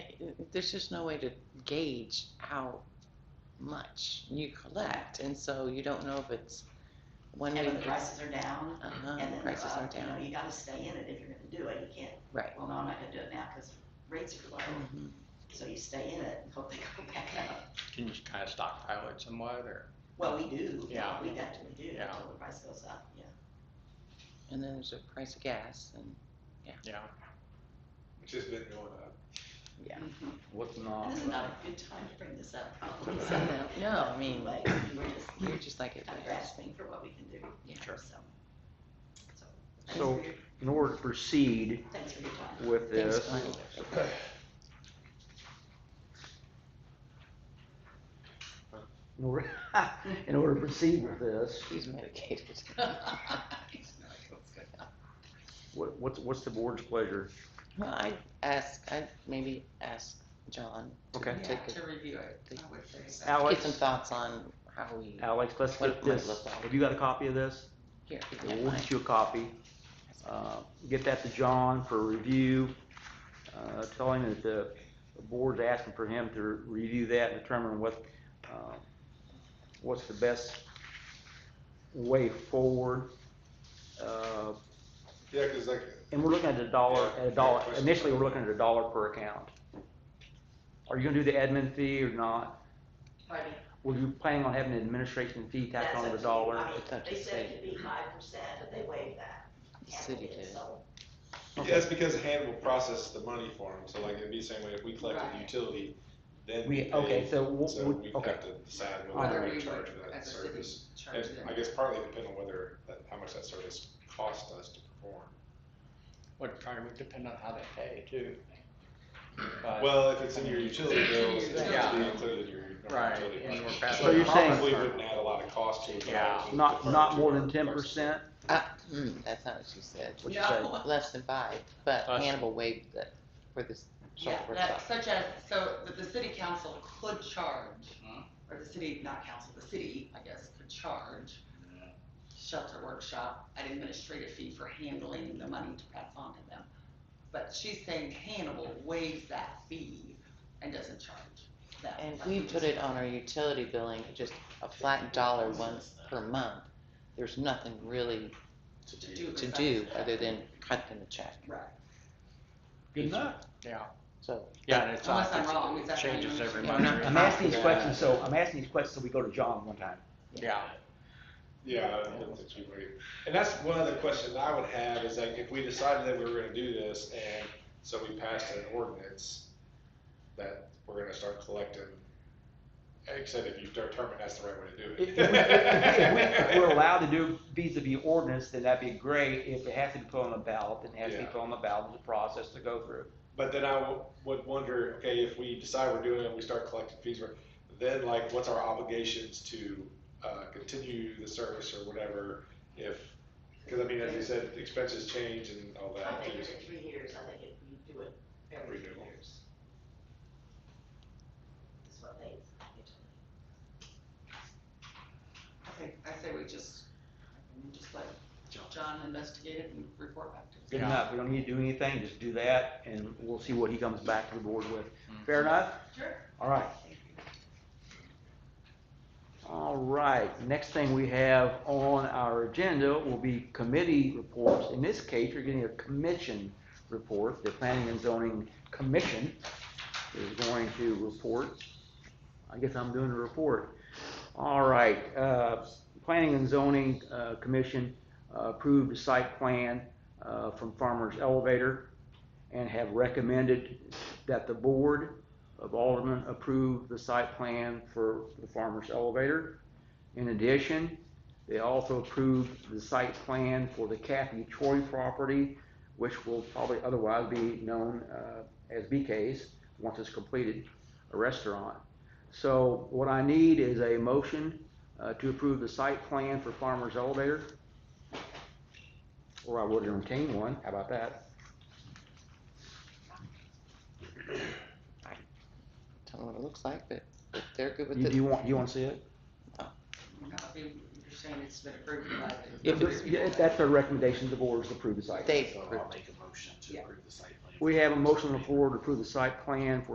there's just no way to gauge how much you collect, and so you don't know if it's one And week. when the prices are down, Uh-huh, and then, prices uh, are you know, down, you gotta stay in it if you're gonna do it, you can't, right. well, no, I'm not gonna do it now, cause rates are low, Mhm. so you stay in it and hope they go back up. Can you kind of stockpile it somewhat, or? Well, we do, yeah, Yeah. we definitely do, Yeah. until the price goes up, yeah. And then there's a price of gas and, Yeah. which has been going up. yeah. Mhm. What's not, This is not a good time to bring this up, probably. So, no, no, I mean, But we're just you're just like it kind of was. grasping for what we can do, Yeah. so. So, thanks So- for your, in order to proceed thanks for your time. with Thanks, this, Glenn. in order, in order to proceed with this, He's medicated. what, what's, what's the board's pleasure? Well, I ask, I maybe ask John Okay. to take To review it, I would say a, Alex? get some thoughts on how we, Alex, let's What get it might this, look like. have you got a copy of this? here, if you don't We'll mind. get you a copy. Uh, Get that to John for review. Uh, Tell him that the board's asking for him to review that and determine what, uh, what's the best way forward. Uh, Yeah, because like, And we're looking at a dollar, Yeah, at a dollar, fair question. initially, we're looking at a dollar per account. Are you gonna do the admin fee or not? Pardon? Were you planning on having an administration fee tacked That's on to up the to you. dollar? I mean, It's up to They the said it city. could be five percent, but they waived that. The city did. So, Okay. that's because Hand will process the money for them, so like, it'd be the same way if we collected Right. utility, then we We, pay. okay, so, we'll- So we'll- we okay. have to decide Whether whether we're we gonna charge would, for that as a city, service. charge And them. I guess partly depend on whether, that- how much that service cost us to perform. Would probably would depend on how they pay too. But- Well, if it's in your utility bills, it's Yeah. gonna be included in your normal Right, utility. and budget. we're passing So you're it saying- Probably wouldn't add a lot of cost to it. but Yeah. it's Not, deferred not to more our than ten process. percent? Uh, mm, that's not what she said. What'd you say? Less than five, but Us. Hannibal waived that for this Yeah, software that, stuff. such as, so that the city council could charge, or the city, not council, the city, I guess, could charge shelter workshop an administrative fee for handling the money to pass on to them. But she's saying Hannibal waives that fee and doesn't charge that. And like we you put just- it on our utility billing, just a flat dollar once per month. There's nothing really To do. to besides do that. other than cut them a check, Right, Good enough. Yeah, so. yeah, and it's, uh, unless I'm wrong, is that? how you changes every understand month. it? I'm asking these questions, so, I'm asking these questions so we go to John one time. yeah, Yeah, I don't think you would. And that's one other question I would have is like, if we decided that we were gonna do this and so we passed an ordinance that we're gonna start collecting, except if you determine that's the right way to do If it. if we- if we- if we're allowed to do vis-à-vis ordinance, then that'd be great. If it has to be put on the ballot, then it has to be Yeah. put on the ballot, there's a process to go through. But then I w- would wonder, okay, if we decide we're doing it, we start collecting fees, for it, then like, what's our obligations to uh, continue the service or whatever? If, because I mean, as you said, expenses change and all I that. think too. it's in three years, I think if you do it every three Renewal. years. That's what they, Okay, I say we just, I mean, just let John investigate it and report back to us. Good Yeah. enough, we don't need to do anything, just do that, and we'll see what he comes back to the board with. Mm. Fair enough? Sure. All right. All right, next thing we have on our agenda will be committee reports. In this case, you're getting a commission report. The Planning and Zoning Commission is going to report. I guess I'm doing the report. All right, uh, Planning and Zoning, uh, Commission uh, approved a site plan, uh, from Farmers Elevator and have recommended that the board of Aldermen approve the site plan for the farmer's elevator. In addition, they also approved the site plan for the Kathy Troy property, which will probably otherwise be known uh, as BK's, once it's completed, a restaurant. So what I need is a motion uh, to approve the site plan for farmer's elevator. Or I would entertain one, how about that? Tell them what it looks like, but if they're good with You- Do you it, want, you want to see it? Now, if you- you're saying it's been approved by the. If it's- people if that- that's their recommendation, the board is to approve the site. plan. they So approve. I'll make a motion to Yeah. approve the site plan. We have a motion on the floor to approve the site plan for